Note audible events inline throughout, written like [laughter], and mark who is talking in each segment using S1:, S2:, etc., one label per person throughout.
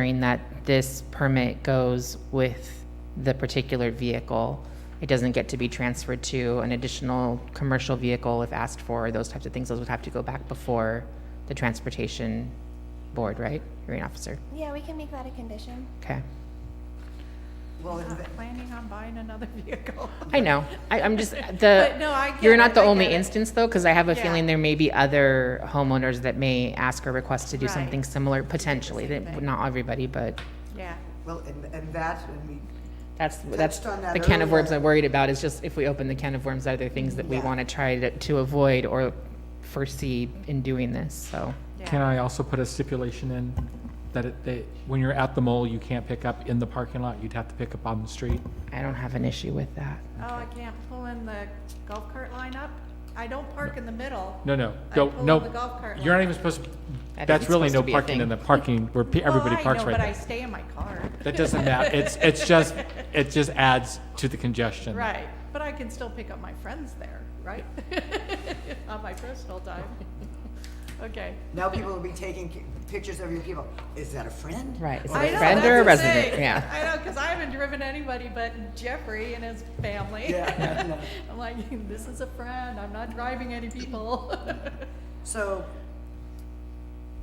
S1: ensuring that this permit goes with the particular vehicle. It doesn't get to be transferred to an additional commercial vehicle if asked for, those types of things. Those would have to go back before the transportation board, right? Hearing officer.
S2: Yeah, we can make that a condition.
S1: Okay.
S3: Well,
S4: I'm
S3: and
S4: not planning on buying another [laughs] vehicle.
S1: I know. I, I'm
S4: [laughs]
S1: just the.
S4: But no, I get
S1: you're not
S4: it,
S1: the
S4: I
S1: only
S4: get it.
S1: instance though, because I have a
S4: Yeah.
S1: feeling there may be other homeowners that may ask or request to do
S4: Right.
S1: something similar potentially.
S4: same
S1: That-
S4: thing.
S1: Not everybody, but
S4: Yeah,
S3: well, and, and that, and we,
S1: that's that's
S3: Touched on that
S1: the can of worms
S3: earlier.
S1: I'm worried about. Is just if we open the can of worms, are there things that we
S3: Yeah.
S1: want to try to, to avoid or foresee in doing this? So
S5: Can
S4: yeah.
S5: I also put a stipulation in that it, that when you're at the mall, you can't pick up in the parking lot, you'd have to pick up on the street?
S1: I don't have an issue with that.
S4: Oh, I can't pull in the golf cart line up? I don't park in the middle.
S5: No, no,
S4: I
S5: go,
S4: pull
S5: no,
S4: in the golf cart
S5: you're not
S4: line.
S5: even supposed, to-
S1: think
S5: that's
S1: it's
S5: really
S1: supposed
S5: no
S1: to be a
S5: parking in
S1: thing.
S5: the parking where pe-
S4: Well,
S5: everybody
S4: I
S5: parks
S4: know,
S5: right
S4: But I
S5: there.
S4: stay in my car.
S5: That
S4: [laughs]
S5: doesn't matter, it's, it's just, it just adds to the congestion.
S4: Right, but I can still pick up my friends there, right? [laughs] On my personal time. [laughs] Okay.
S3: now people will be taking ki- pictures of your people. Is that a friend?
S1: Right. Is
S3: Or
S1: it a
S4: I know,
S1: friend
S4: that's
S1: or a
S4: the
S1: resident?
S4: thing.
S1: Yeah.
S4: I know, because I haven't driven anybody but Jeffrey and his family.
S3: Yeah, no.
S4: [laughs] I'm like, this is a friend, I'm not driving any people. [laughs]
S3: So,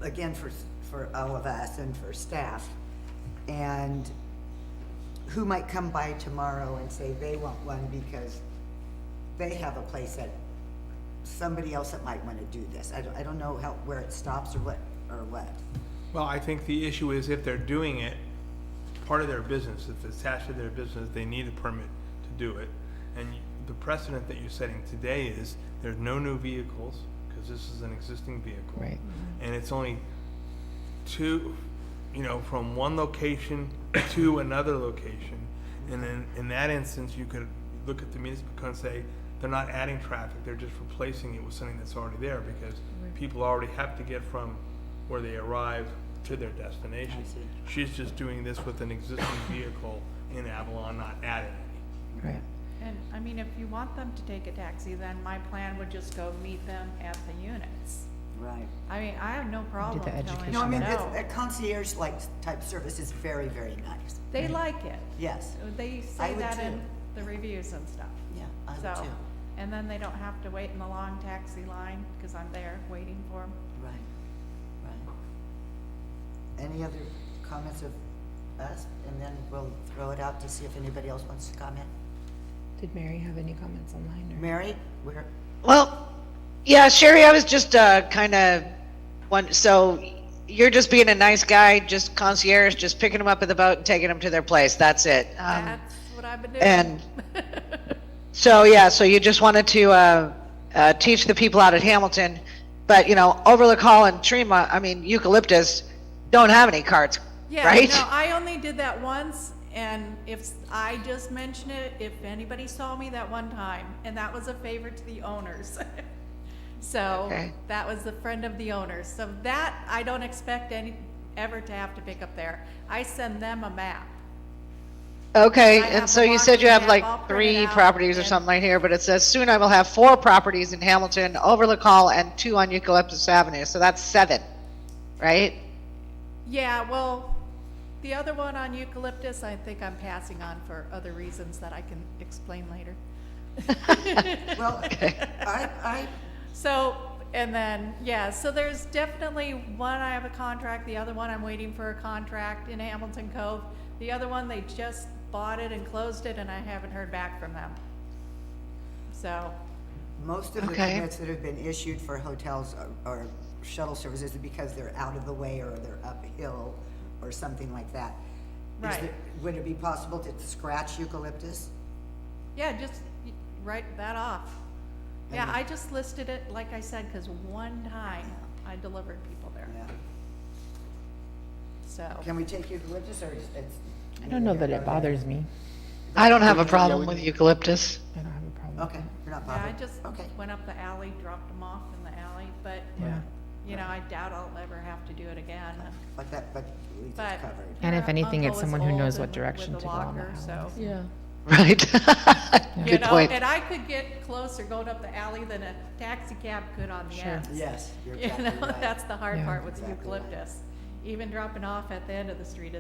S3: again, for, s- for all of us and for staff, and who might come by tomorrow and say they want one because they have a place that, somebody else that might wanna do this. I don't, I don't know how, where it stops or what, or what.
S6: Well, I think the issue is if they're doing it, part of their business, if it's attached to their business, they need a permit to do it. And you- the precedent that you're setting today is there's no new vehicles, because this is an existing vehicle.
S1: Right.
S6: And it's only two, you know, from one location [coughs] to another location. And then, in that instance, you could look at the municipal code and say, they're not adding traffic, they're just replacing it with something that's already there, because people already have to get from where they arrive to their destination. She's just doing this with an existing vehicle in Avalon, not adding any.
S1: Right.
S4: And, I mean, if you want them to take a taxi, then my plan would just go meet them at the units.
S3: Right.
S4: I mean, I have no problem telling them
S1: education.
S3: No, I mean, it's,
S4: no.
S3: a concierge-like type service is very, very nice.
S4: They like it.
S3: Yes,
S4: They
S3: I
S4: say
S3: would
S4: that in
S3: too.
S4: the reviews and stuff.
S3: yeah, I would
S4: So,
S3: too.
S4: and then they don't have to wait in the long taxi line, because I'm there waiting for them.
S3: Right, right. Any other comments of us? And then we'll throw it out to see if anybody else wants to comment.
S1: Did Mary have any comments online? Or?
S3: Mary, we're,
S7: Well, yeah, Sherry, I was just uh, kind of one. So you're just being a nice guy, just concierge, just picking them up at the boat and taking them to their place. That's it. Um,
S4: That's what I've been doing.
S7: and so yeah, so you just wanted to uh, uh, teach the people out at Hamilton, but you know, Overlook Hall and Trima, I mean Eucalyptus, don't have any carts,
S4: Yeah,
S7: right?
S4: no, I only did that once, and if I just mention it, if anybody saw me that one time, and that was a favor to the owners. [laughs] so
S7: Okay.
S4: that was the friend of the owners. So that I don't expect any ever to have to pick up there. I send them a map.
S7: Okay,
S4: I
S7: and
S4: have
S7: so
S4: the
S7: you said you
S4: walking map
S7: have
S4: all printed
S7: like three
S4: out
S7: properties or
S4: and-
S7: something like here, but it says soon I will have four properties in Hamilton, Overlook Hall, and two on Eucalyptus Avenue, so that's seven, right?
S4: Yeah, well, the other one on eucalyptus, I think I'm passing on for other reasons that I can explain later.
S3: well, I, I,
S4: So, and then, yeah, so there's definitely one I have a contract, the other one I'm waiting for a contract in Hamilton Cove. The other one, they just bought it and closed it and I haven't heard back from them. So,
S3: most of the
S7: Okay.
S3: permits that have been issued for hotels or- or shuttle services is because they're out of the way or they're uphill or something like that. Is
S4: Right.
S3: there- Would it be possible to scratch eucalyptus?
S4: yeah, just write that off. Yeah, I just listed it, like I said, because one time I delivered people there,
S3: Yeah.
S4: so.
S3: Can we take eucalyptus or is it's?
S1: I don't know that it bothers me.
S7: I don't have a problem with eucalyptus. [laughs]
S1: I don't have a problem.
S3: Okay, you're not
S4: Yeah, I
S3: bothered?
S4: just
S3: Okay.
S4: went up the alley, dropped them off in the alley, but,
S1: Yeah.
S4: you know, I doubt I'll ever have to do it again.
S3: But that, but at least
S4: But-
S3: it's covered.
S1: And if
S4: Her
S1: anything, it's
S4: uncle is
S1: someone who
S4: old
S1: knows
S4: and
S1: what
S4: with
S1: direction
S4: a
S1: to go on the
S4: walker,
S1: alley.
S4: so-
S1: Yeah.
S7: Right.
S4: You
S7: Good
S4: know,
S7: point.
S4: and I could get closer going up the alley than a taxi cab could on the
S1: Sure.
S4: ends.
S3: Yes, you're
S4: [laughs] You
S3: exactly
S4: know,
S3: right.
S4: that's the hard
S1: Yeah.
S4: part with
S3: Exactly right.
S4: eucalyptus. even dropping off at the end of the street